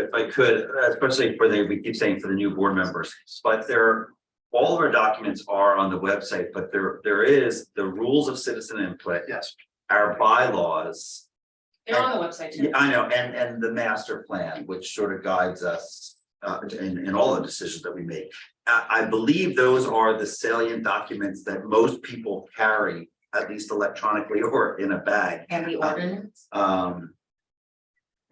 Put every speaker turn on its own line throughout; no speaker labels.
if I could, especially for the, we keep saying for the new board members, but there. All of our documents are on the website, but there, there is the rules of citizen input,
Yes,
our bylaws.
They're on the website too.
Yeah, I know, and, and the master plan, which sort of guides us, uh, in, in all the decisions that we make. I, I believe those are the salient documents that most people carry, at least electronically or in a bag,
And the ordinance,
um.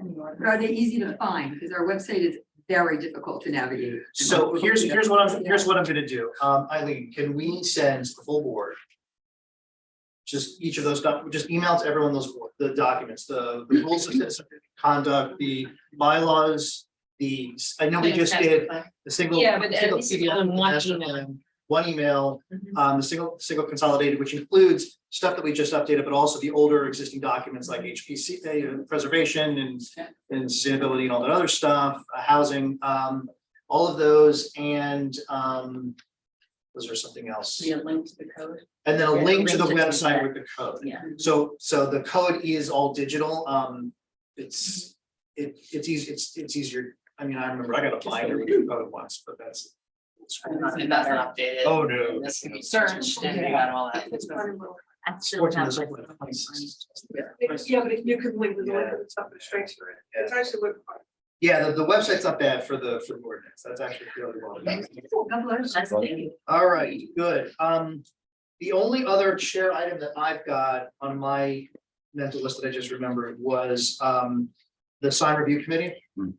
and the ordinance.
Are they easy to find? Because our website is very difficult to navigate.
so here's, here's what I'm, here's what I'm gonna do. Um, Eileen, can we send the full board? Just each of those, doc- just email to everyone those, wo- the documents, the the rules of citizen conduct, the bylaws, the, I know we just did the single.
Yeah, but at
single
least it's
PDF,
on one
master
email.
plan, One email,
Mhm.
um, the single, single consolidated, which includes stuff that we just updated, but also the older existing documents like HPC, uh, preservation and.
Yeah.
And sustainability and all that other stuff, uh, housing, um, all of those and, um. Was there something else?
We have linked to the code.
And then a
Yeah,
link to the
link to the-
website with the code.
Yeah.
So, so the code is all digital, um, it's, it, it's easy, it's, it's easier, I mean, I remember, I got a binder with the code once, but that's.
And that's not updated.
Oh, no.
This can be searched and you got all that.
I still
Fortunately,
have
there's
like.
only like places.
Yeah, but if you could link with the
Yeah.
one that's up the strength for it, it's
Yeah.
actually what.
Yeah, the, the website's not bad for the, for the ordinance, that's actually really well.
Oh,
That's the-
All right, good, um, the only other chair item that I've got on my mental list that I just remembered was, um, the sign review committee.
Mhm.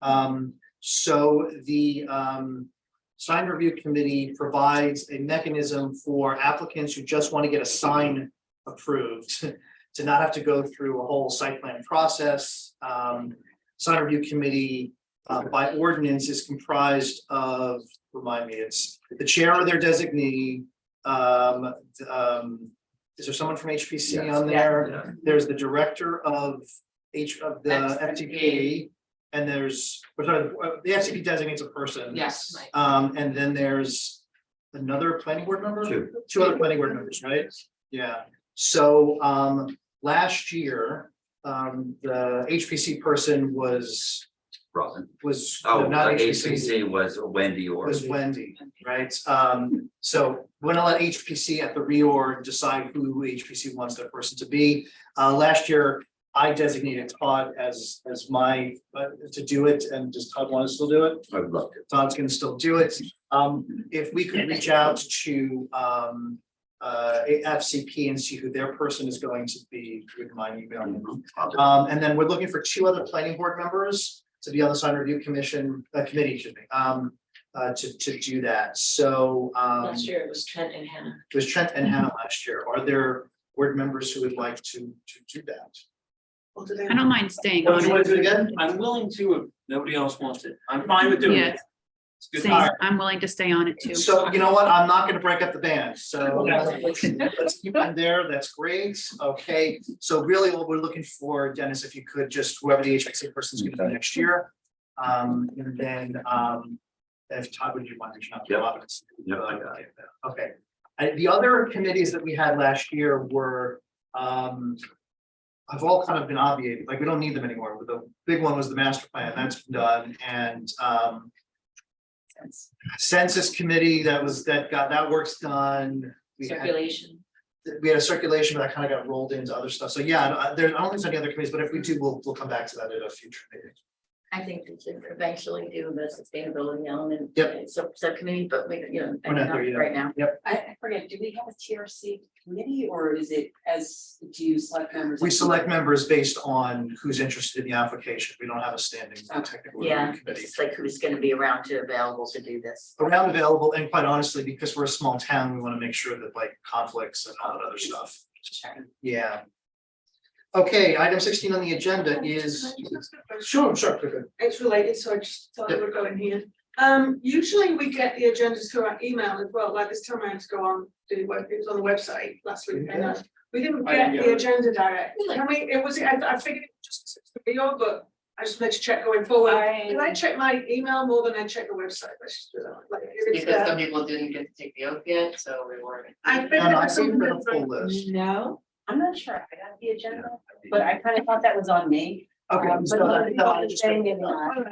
Um, so the, um, sign review committee provides a mechanism for applicants who just want to get a sign approved to not have to go through a whole site plan process. Um, sign review committee, uh, by ordinance is comprised of, remind me, it's the chair or their designee. Um, um, is there someone from HPC
Yes.
on there?
yeah.
there's the director of H of the FTP. And there's, or sorry, uh, the FTP designates a person.
Yes, right.
Um, and then there's another planning board member?
Two.
Two other planning board members, right? Yeah, so, um, last year, um, the HPC person was,
Robin.
was
Oh,
no, not HPC,
HPC was Wendy or.
was Wendy, right? Um, so we're gonna let HPC at the reorg decide who HPC wants that person to be. Uh, last year, I designated Todd as, as my, uh, to do it, and does Todd want to still do it?
I would love to.
Todd's gonna still do it. Um, if we could reach out to, um, uh, FCP and see who their person is going to be, would mind emailing them.
I'll do it.
Um, and then we're looking for two other planning board members to be on the sign review commission, uh, committee, excuse me, um, uh, to, to do that. So, um,
Last year it was Trent and Hannah.
it was Trent and Hannah last year. Are there board members who would like to, to do that?
I don't mind staying
Would
on
you want
it.
to do it again?
I'm willing to, if nobody else wants it. I'm fine with doing it.
Yes,
It's good.
same. I'm willing to stay on it too.
So you know what? I'm not gonna break up the band, so
Okay.
let's let's keep them there. That's great. Okay, so really what we're looking for, Dennis, if you could just whoever the HPC person's gonna be next year. Um, and then um, if Todd would you want to reach out to
Yep.
Providence?
Yep, I got
uh, Okay, and the other committees that we had last year were um. Have all kind of been obviated, like we don't need them anymore. But The big one was the master plan, that's done, and um census committee, that was, that got, that work's done. We had,
Circulation.
we had a circulation, but that kind of got rolled into other stuff. So yeah, I- there, I don't think there's any other committees, but if we do, we'll, we'll come back to that at a future meeting.
I think we should eventually do the sustainability element.
Yep.
sub- Subcommittee, but we, you know,
We're not there yet.
right now.
I, I forget, do we have a TRC committee or is it as, do you select members?
We select members based on who's interested in the application. We don't have a standing technical
Yeah,
review
it's
committee. Oh.
just like who's gonna be around to available to do this.
Around available, and quite honestly, because we're a small town, we want to make sure that like conflicts and all that other stuff. Yeah. Okay, item sixteen on the agenda is, sure, sure, go ahead.
It's related, so I just thought it would go in here. Um, usually we get the agendas through our email as well, like this time I had to go on, to the web- it was on the website last week. and, uh, We didn't
I didn't
get
get
the
it.
agenda direct, I mean, it was, I, I figured it was just a video, but I just meant to check going forward. And I check my email more than I check the website, let's just do that, like, if it's
Because
there.
some people didn't get to take the oath yet, so we weren't.
No,
I figured
no,
it
I
was
see
something
you've got a
different.
full list.
No, I'm not sure. I got the agenda, but I kind of thought that was on me.
Okay.
Um,
so-
But you know, people are saying it a lot.